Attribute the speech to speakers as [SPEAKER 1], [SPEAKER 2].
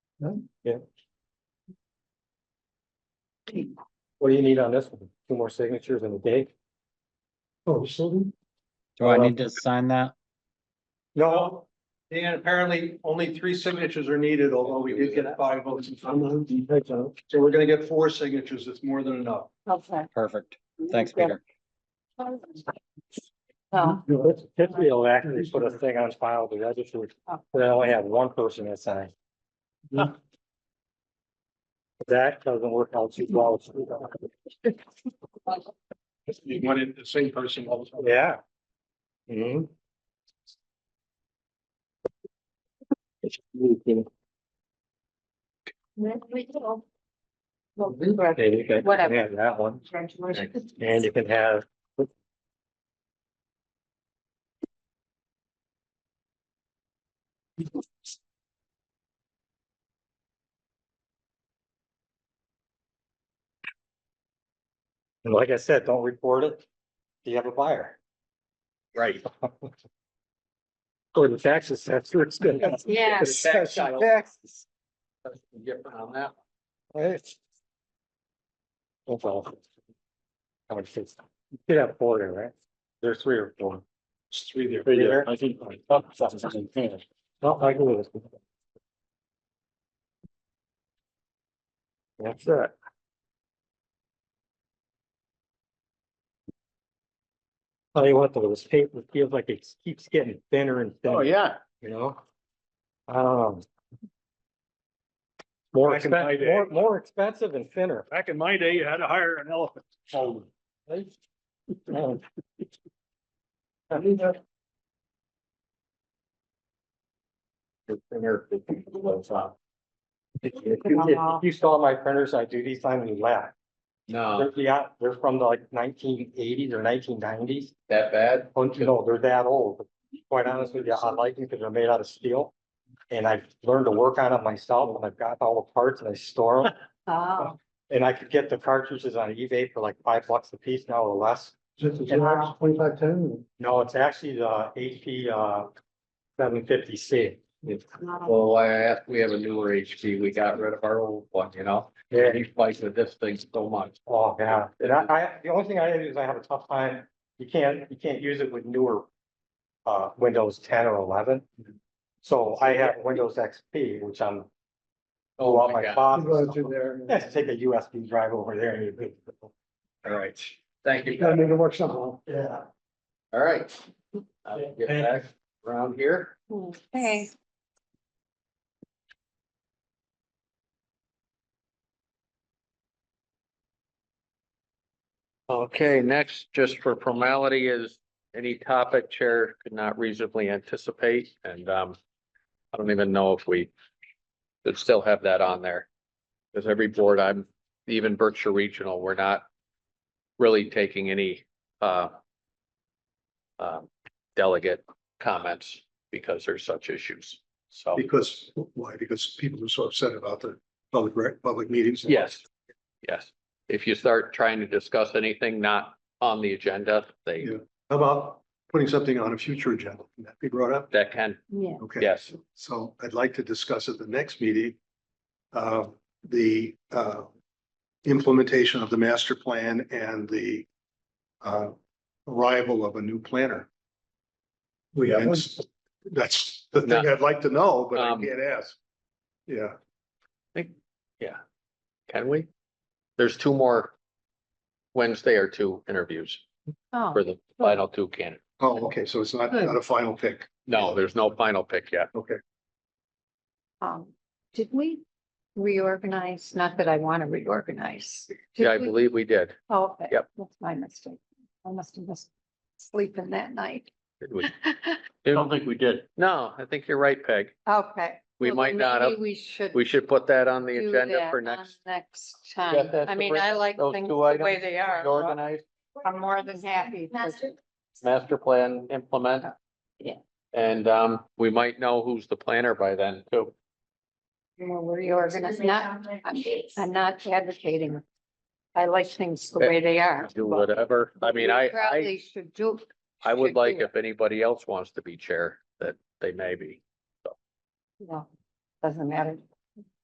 [SPEAKER 1] What do you need on this one? Two more signatures and a date?
[SPEAKER 2] Oh, so
[SPEAKER 3] Do I need to sign that?
[SPEAKER 1] No,
[SPEAKER 4] And apparently only three signatures are needed, although we did get five votes. in
[SPEAKER 2] I'm
[SPEAKER 4] favor.
[SPEAKER 2] on the right now.
[SPEAKER 4] So we're gonna get four signatures. It's more than enough.
[SPEAKER 5] Okay.
[SPEAKER 3] Perfect. Thanks, Peter.
[SPEAKER 5] Oh,
[SPEAKER 1] typically it'll actually put a thing on file, but I just would, but I only have one person that signed. That doesn't work out too well.
[SPEAKER 4] You wanted the same person. all the time.
[SPEAKER 1] Yeah. Hmm?
[SPEAKER 5] there we go. Well, congrats.
[SPEAKER 1] Okay, you can-
[SPEAKER 5] Whatever.
[SPEAKER 1] Yeah, that one.
[SPEAKER 5] Congratulations.
[SPEAKER 1] And you can have. And like I said, don't report it. Do you have a buyer?
[SPEAKER 3] Right.
[SPEAKER 1] Or the tax assessor is gonna.
[SPEAKER 5] Yeah,
[SPEAKER 1] assess your taxes.
[SPEAKER 4] Different on that.
[SPEAKER 1] Right. Oh, well. How much is, you could have four there, right? There's three or four.
[SPEAKER 4] It's three there.
[SPEAKER 1] Three there. I think.
[SPEAKER 4] oh,
[SPEAKER 1] No, I agree with it. That's it. Tell Oh, you what, though, this paper feels like it keeps getting thinner and
[SPEAKER 6] Oh,
[SPEAKER 1] thinner.
[SPEAKER 4] Oh, yeah.
[SPEAKER 1] You know? Um. More
[SPEAKER 4] I can buy
[SPEAKER 1] expensive,
[SPEAKER 4] that.
[SPEAKER 1] more, more expensive and thinner.
[SPEAKER 4] Back in my day, you had to hire an elephant.
[SPEAKER 1] Um, right? Um, If you- if You saw my printers I do these time and you laugh.
[SPEAKER 6] No,
[SPEAKER 1] They're, yeah, they're from the, like nineteen eighties or nineteen nineties.
[SPEAKER 6] that bad?
[SPEAKER 1] Don't you know, they're that old. Quite honestly, with you, I like them because they're made out of steel. And I've learned to work on them myself and I've got all the parts and I store them.
[SPEAKER 5] oh,
[SPEAKER 1] And I could get the cartridges on eBay for like five bucks a piece now or less.
[SPEAKER 2] Just a Xerox twenty-five ten.
[SPEAKER 1] No, it's actually the HP uh seven fifty C.
[SPEAKER 5] wow.
[SPEAKER 6] Well, why I asked, we have a newer HP, we got rid of our old one, you know,
[SPEAKER 1] Yeah,
[SPEAKER 6] he's fighting with this thing so much.
[SPEAKER 1] oh, yeah. And I, I, the only thing I do is I have a tough time, you can't, you can't use it with newer uh Windows ten or eleven. So I have Windows XP, which I'm
[SPEAKER 6] Oh,
[SPEAKER 1] all
[SPEAKER 6] my
[SPEAKER 1] my
[SPEAKER 6] God,
[SPEAKER 1] father's.
[SPEAKER 2] there.
[SPEAKER 1] Yeah, just take a USB drive over there and you.
[SPEAKER 6] all right, thank you,
[SPEAKER 2] Gotta make it work somehow.
[SPEAKER 1] Yeah.
[SPEAKER 6] all right. I'll Get back around here,
[SPEAKER 5] Hey.
[SPEAKER 6] okay, next, just for formality is any topic chair could not reasonably anticipate, and, um. I don't even know if we should still have that on there, because every board I'm, even Berkshire Regional, we're not really taking any, uh, um, delegate comments because there's such issues, so,
[SPEAKER 4] Because, why? Because people are so upset about the public, rec- public meetings.
[SPEAKER 6] yes, yes. If you start trying to discuss anything not on the agenda, they,
[SPEAKER 4] Yeah. How about putting something on a future agenda? Can that be brought up?
[SPEAKER 6] that can,
[SPEAKER 5] Yeah.
[SPEAKER 4] Okay.
[SPEAKER 6] yes,
[SPEAKER 4] So I'd like to discuss at the next meeting, uh, the, uh, implementation of the master plan and the, uh, arrival of a new planner.
[SPEAKER 2] We got one.
[SPEAKER 4] That's, that's the thing I'd like to know, but I
[SPEAKER 6] Um,
[SPEAKER 4] can't ask. Yeah,
[SPEAKER 6] can we? There's two more Wednesday or two interviews
[SPEAKER 5] Oh,
[SPEAKER 6] for the final two candidates.
[SPEAKER 4] oh, okay, so it's not, not a final pick.
[SPEAKER 6] No, there's no final pick yet.
[SPEAKER 5] um, did we reorganize? Not that I want to reorganize. Did
[SPEAKER 6] Yeah, I
[SPEAKER 5] we-
[SPEAKER 6] believe we did.
[SPEAKER 5] Oh, okay.
[SPEAKER 6] Yep.
[SPEAKER 5] That's my mistake. I must have missed sleeping that night.
[SPEAKER 6] Did we?
[SPEAKER 7] I don't think we did.
[SPEAKER 6] No, I think you're right, Peg.
[SPEAKER 5] Okay.
[SPEAKER 6] We
[SPEAKER 5] Well,
[SPEAKER 6] might
[SPEAKER 5] then
[SPEAKER 6] not have-
[SPEAKER 5] maybe We should.
[SPEAKER 6] We should put that on the
[SPEAKER 5] do
[SPEAKER 6] agenda
[SPEAKER 5] that
[SPEAKER 6] for
[SPEAKER 5] on
[SPEAKER 6] next.
[SPEAKER 5] Next
[SPEAKER 6] Yeah,
[SPEAKER 5] time.
[SPEAKER 6] that's
[SPEAKER 5] I
[SPEAKER 6] the
[SPEAKER 5] mean,
[SPEAKER 6] break-
[SPEAKER 5] I like
[SPEAKER 6] those
[SPEAKER 5] things the
[SPEAKER 6] two
[SPEAKER 5] way
[SPEAKER 6] items
[SPEAKER 5] they are. so
[SPEAKER 6] Organized
[SPEAKER 5] I'm more than happy. to-
[SPEAKER 6] master plan implement.
[SPEAKER 5] Yeah.
[SPEAKER 6] And um, we might know who's the planner by then too.
[SPEAKER 5] We'll reorganize, not, I'm, I'm not advocating. I like things the way they are.
[SPEAKER 6] Do
[SPEAKER 5] but
[SPEAKER 6] whatever. I mean, I,
[SPEAKER 5] we Probably
[SPEAKER 6] I,
[SPEAKER 5] should do.
[SPEAKER 6] I would
[SPEAKER 5] should do
[SPEAKER 6] like
[SPEAKER 5] it.
[SPEAKER 6] if anybody else wants to be chair, that they may be.
[SPEAKER 5] No, doesn't matter.